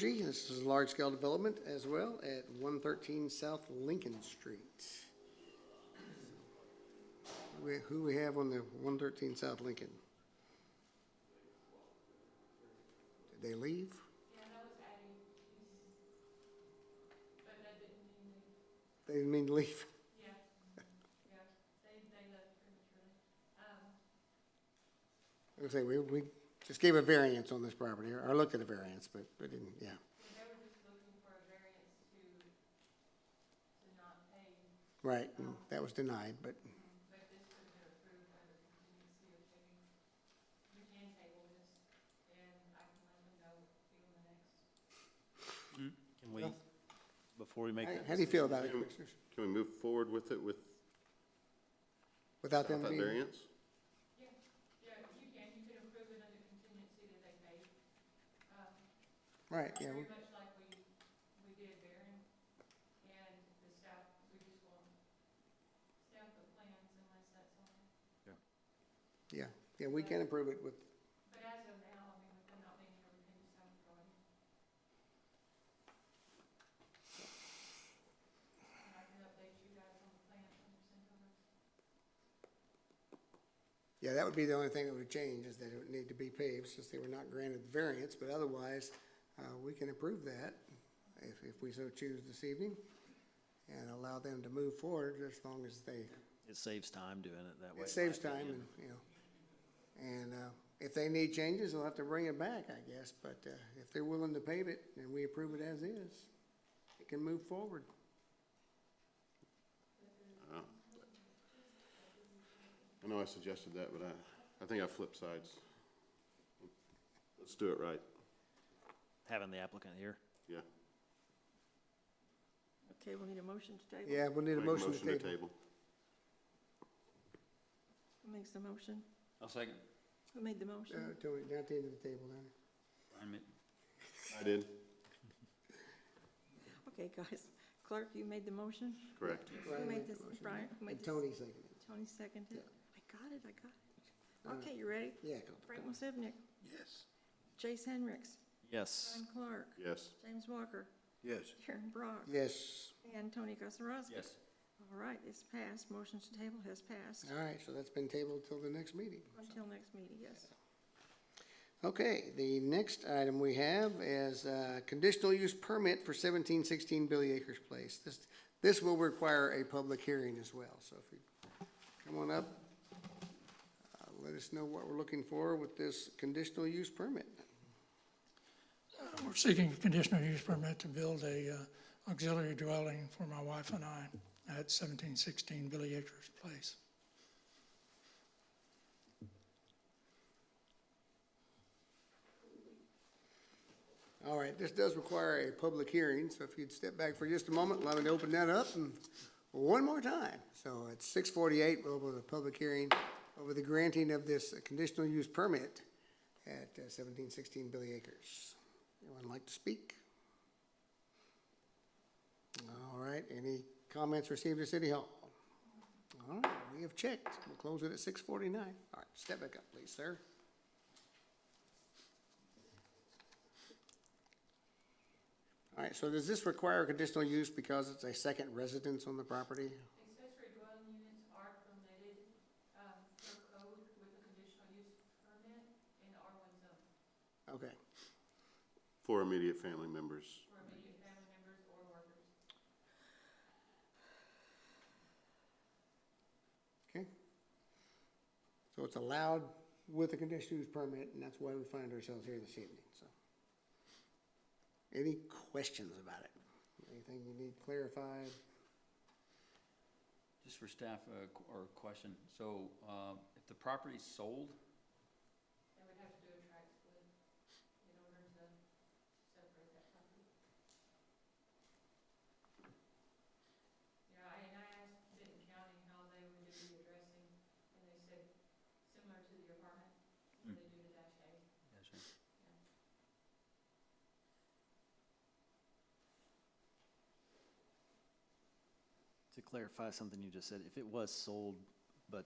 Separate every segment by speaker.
Speaker 1: G, this is large-scale development as well at one thirteen South Lincoln Street. We, who we have on the one thirteen South Lincoln? Did they leave? They didn't mean to leave? I was gonna say, we, we just gave a variance on this property, or looked at a variance, but we didn't, yeah.
Speaker 2: They were just looking for a variance to, to not pay,
Speaker 1: Right, and that was denied, but,
Speaker 2: but this would have been approved by the contingency of taking, we can table this, and I can let them know, be on the next.
Speaker 3: Can we, before we make
Speaker 1: Hey,
Speaker 3: that
Speaker 1: how do you feel about it,
Speaker 4: Can we-
Speaker 1: Commissioners?
Speaker 4: Can we move forward with it with
Speaker 1: Without
Speaker 4: that
Speaker 1: them being,
Speaker 4: variance?
Speaker 2: Yeah, yeah, you can, you can approve it under contingency that they paid, um,
Speaker 1: right, yeah, we-
Speaker 2: very much like we, we did Baron, and the staff, we just won't staff the plans unless that's on.
Speaker 1: yeah, yeah, we can improve it with,
Speaker 2: But as of now, I mean, with them not being here, we can just have it going. And I can update you guys on the plan when it's sent over.
Speaker 1: yeah, that would be the only thing that would change, is that it would need to be paved, since they were not granted the variance, but otherwise, uh, we can approve that if, if we so choose this evening, and allow them to move forward as long as they
Speaker 3: it saves time doing it that way? in my
Speaker 1: It saves time
Speaker 3: opinion.
Speaker 1: and, you know, and, uh, if they need changes, they'll have to bring it back, I guess, but, uh, if they're willing to pave it and we approve it as is, it can move forward.
Speaker 4: I know I suggested that, but I, I think I flipped sides. Let's do it right,
Speaker 3: Having the applicant here,
Speaker 4: yeah.
Speaker 5: Okay, we'll need a motion to table.
Speaker 1: Yeah, we'll need a
Speaker 4: Make
Speaker 1: motion to table.
Speaker 4: table.
Speaker 5: Who makes the motion?
Speaker 6: I'll second.
Speaker 5: Who made the
Speaker 1: Uh,
Speaker 5: motion?
Speaker 1: Tony, down at the end of the table, down there.
Speaker 6: Ryan made-
Speaker 4: I did,
Speaker 5: Okay, guys, clerk, you made the motion?
Speaker 4: correct.
Speaker 1: Brian
Speaker 5: Who
Speaker 1: made
Speaker 5: made
Speaker 1: the
Speaker 5: this,
Speaker 1: motion.
Speaker 5: Brian? who made
Speaker 1: And
Speaker 5: this?
Speaker 1: Tony seconded it.
Speaker 5: Tony seconded.
Speaker 1: Yeah.
Speaker 5: I got it, I got
Speaker 1: Uh,
Speaker 5: it. Okay, you ready?
Speaker 1: Yeah,
Speaker 5: Frank Musivnik,
Speaker 4: Yes.
Speaker 5: Jace Hendricks,
Speaker 3: yes.
Speaker 5: John Clark,
Speaker 4: Yes,
Speaker 5: James Walker,
Speaker 7: Yes.
Speaker 5: Karen Brock,
Speaker 1: yes,
Speaker 5: and Tony Gazarovski.
Speaker 6: Yes.
Speaker 5: All right, it's passed. Motion to table has passed
Speaker 1: all right, so that's been tabled till the next meeting.
Speaker 5: until next meeting, yes.
Speaker 1: Okay, the next item we have is uh conditional use permit for seventeen sixteen Billy Acres Place. This, this will require a public hearing as well, so if you come on up, uh, let us know what we're looking for with this conditional use permit.
Speaker 8: We're seeking a conditional use permit to build a uh, auxiliary dwelling for my wife and I at seventeen sixteen Billy Acres Place.
Speaker 1: All right, this does require a public hearing, so if you'd step back for just a moment, allow me to open that up and one more time. So at six forty-eight, we'll open the public hearing over the granting of this conditional use permit at uh, seventeen sixteen Billy Acres. Anyone like to speak? All right, any comments received at City Hall? All right, we have checked. We'll close it at six forty-nine. All right, step back up, please, sir. All right, so does this require conditional use because it's a second residence on the property?
Speaker 2: Accessory dwelling units are permitted, um, per code with a conditional use permit in the R one zone
Speaker 1: Okay,
Speaker 4: for immediate family members.
Speaker 2: for immediate family members or workers.
Speaker 1: okay. So it's allowed with a conditional use permit, and that's why we find ourselves here this evening, so. Any questions about it? Anything you need clarified?
Speaker 6: Just for staff, uh, qu- or question, so, um, if the property's sold,
Speaker 2: They would have to do a track split in order to separate that property. You know, I- and I asked Benton County how they would do the addressing, and they said, similar to the apartment,
Speaker 6: Hmm.
Speaker 2: what they do to dash A.
Speaker 3: To clarify something you just said, if it was sold, but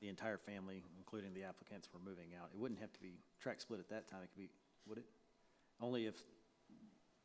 Speaker 3: the entire family, including the applicants, were moving out, it wouldn't have to be track split at that time, it could be, would it? Only if